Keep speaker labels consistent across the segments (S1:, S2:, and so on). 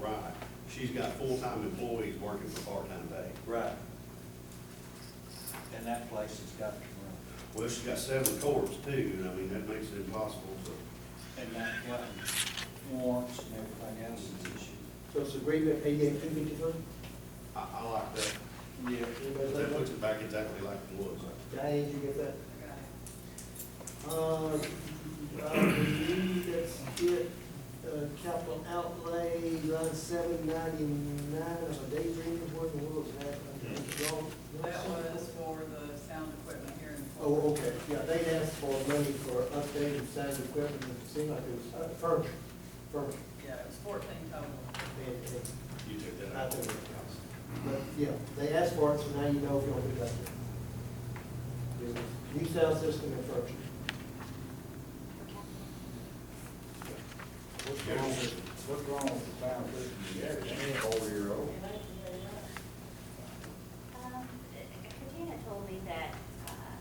S1: right. She's got full-time employees working for part-time pay.
S2: Right. And that place has got to run.
S1: Well, she's got seven courts too, and I mean, that makes it impossible to,
S2: And that, got warrants and everything else is an issue.
S3: So it's agreed at eighty-eight, two fifty-three?
S1: I, I like that.
S2: Yeah.
S3: Anybody
S1: That
S3: like
S1: puts
S3: that?
S1: it back exactly like it was.
S3: Diane, did you get that? Uh, I believe that's it, uh, capital outlay, line seven ninety-nine, of a daydream, what in the world is that? Y'all- y'all
S4: That
S3: see it?
S4: was for the sound equipment here in Fort
S3: Oh, okay, yeah, they asked for money for updated sound equipment, it seemed like it was uh, furniture, furniture.
S4: Yeah, it was fourteen total.
S3: and- and
S1: You took that
S3: I
S1: out.
S3: think it counts. But, yeah, they asked for it, so now you know if you don't do that. New sound system and furniture.
S5: What's wrong with, what's wrong with the sound system? Yeah, it's four year old.
S6: Um, Katina told me that, uh,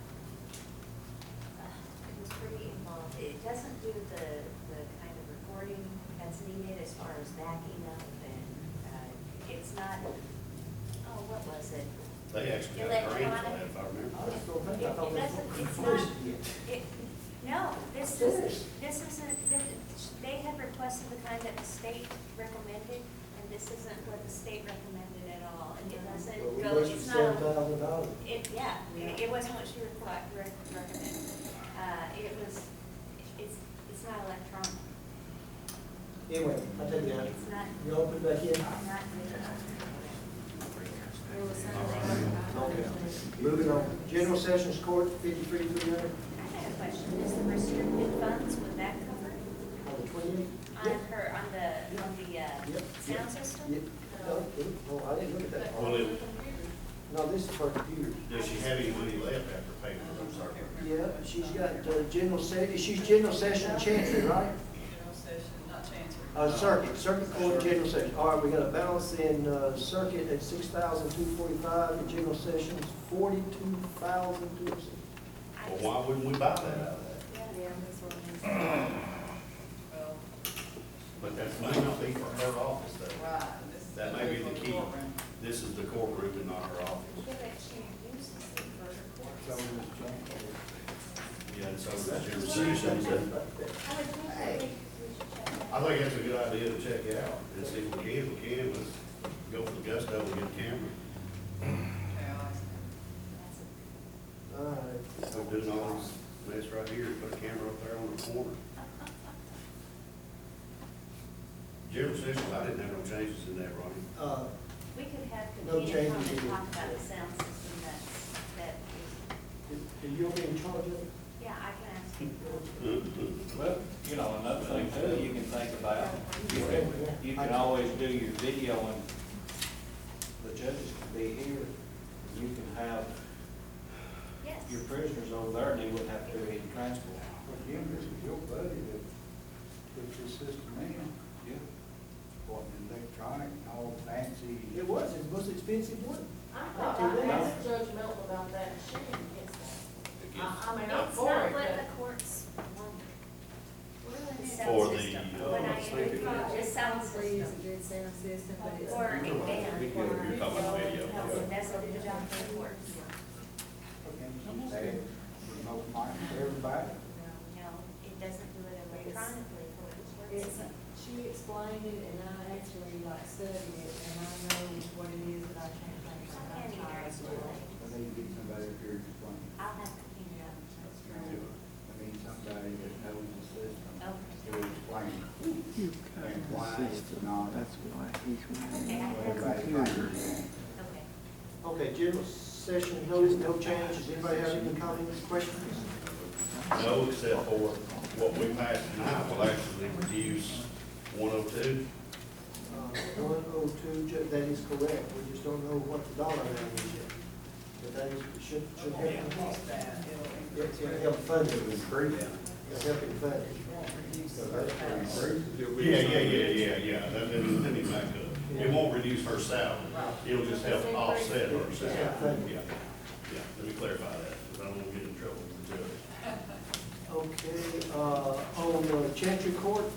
S6: uh, it was pretty involved. It doesn't do the, the kind of recording that's needed as far as backing up and, uh, it's not, oh, what was it?
S1: They actually got a grant for that, if I
S3: I
S1: remember.
S3: just don't think, I thought that's what
S6: It- it doesn't- it's
S3: first
S6: not-
S3: did.
S6: It, no, this is, this isn't, this- they had requested the kind that the state recommended, and this isn't what the state recommended at all, and it
S3: But
S6: doesn't
S3: we
S6: go,
S3: wasted
S6: it's not.
S3: seven thousand dollars.
S6: It, yeah, it, it wasn't what she required, recommended. Uh, it was, it's, it's not electronic.
S3: Anyway, I take that.
S6: It's not,
S3: You open back in?
S6: not digital. There was something. about-
S3: Okay. Moving on, general sessions court, fifty-three, three hundred,
S6: I had a question. Is the restricted funds, would that cover it?
S3: on the twentieth?
S6: on her, on the, on the, uh,
S3: Yep.
S6: sound system? Oh,
S3: Yep, no, no, I didn't look at that
S1: Well,
S3: part.
S1: it-
S3: No, this is her computer.
S1: Does she have any money left after payment? I'm sorry.
S3: Yeah, she's got, uh, general se, she's general session chancery, right?
S4: General session, not chancery.
S3: Uh, circuit, circuit court, general session. All right, we got a balance in, uh, circuit at six thousand two forty-five, and general sessions forty-two thousand two sixty.
S6: I
S1: Well,
S6: just-
S1: why wouldn't we buy that out of that?
S6: Yeah, that's what I'm
S4: Well,
S1: But that might not be for her office though.
S4: right, and this is.
S1: That may be the key.
S4: courtroom.
S1: This is the courtroom and not her office.
S6: Yeah, but she uses it for her course.
S5: So it's junk.
S1: Yeah, and so the general sessions, and
S6: I would think that we we should check that.
S1: I think that's a good idea to check it out and see if we can, if we can, let's go for the gusto and get a camera.
S4: Okay, I see.
S6: That's a-
S3: All right,
S1: We're doing all this mess right here, put a camera up there on the corner. General sessions, I didn't have no changes in that, Ronnie.
S3: uh,
S6: We could have
S3: No
S6: Katina come
S3: changes
S6: and
S3: needed.
S6: talk about the sound system that's, that is,
S3: are you okay in charge of it?
S6: yeah, I can ask people.
S2: Well, you know, another thing too, you can think about, you can, you can always do your video and the judges can be here. You can have
S6: Yes.
S2: your prisoners over there and they wouldn't have to do any transport.
S5: Well, Jim, this is your buddy that put your system in,
S2: Yeah.
S5: bought an electronic, and all fancy.
S3: It was, it's the most expensive one.
S7: I thought I asked Judge Melton about that, and she didn't get that. I, I mean, I'm
S6: It's
S7: for
S6: not
S7: it,
S6: what
S7: but.
S6: the courts want. We're in
S1: For
S6: the sound
S1: the,
S6: system,
S1: uh,
S6: when I agree, just sound
S8: Three is
S6: system.
S8: a good sound system, but it's.
S6: Or a
S1: You're
S6: band.
S1: talking about video, yeah.
S6: That's what the job for the courts.
S5: And they had remote mic for everybody.
S6: No, it doesn't do it electronically for the courts.
S8: It's, she explained it and I actually like studied it and I know what it is that I can't think
S6: I
S8: of.
S6: can't either,
S8: I'm tired.
S6: it's too late.
S5: They need to get somebody up here to explain.
S6: I'll have Katina out and talk to her.
S5: I mean, somebody that knows the system,
S6: Okay.
S5: to explain and why it's not.
S6: Okay, I have,
S5: what everybody thinks.
S6: okay.
S3: Okay, general session, no, no changes. Anybody have any comments, questions?
S1: No, except for what we passed tonight will actually reduce one oh two.
S3: One oh two, that is correct, we just don't know what the dollar amount is yet. But that is, should, should help.
S4: Yeah,
S3: It's
S4: that, it'll increase.
S3: gonna help fund it,
S5: Improve it.
S3: it's helping fund it.
S5: So that's what improves it.
S1: Yeah, yeah, yeah, yeah, yeah, that, that, let me back up. It won't reduce her salary, it'll just help offset her salary. Yeah, yeah, let me clarify that, because I don't want to get in trouble with the judge.
S3: Okay, uh, on the Chantry Court,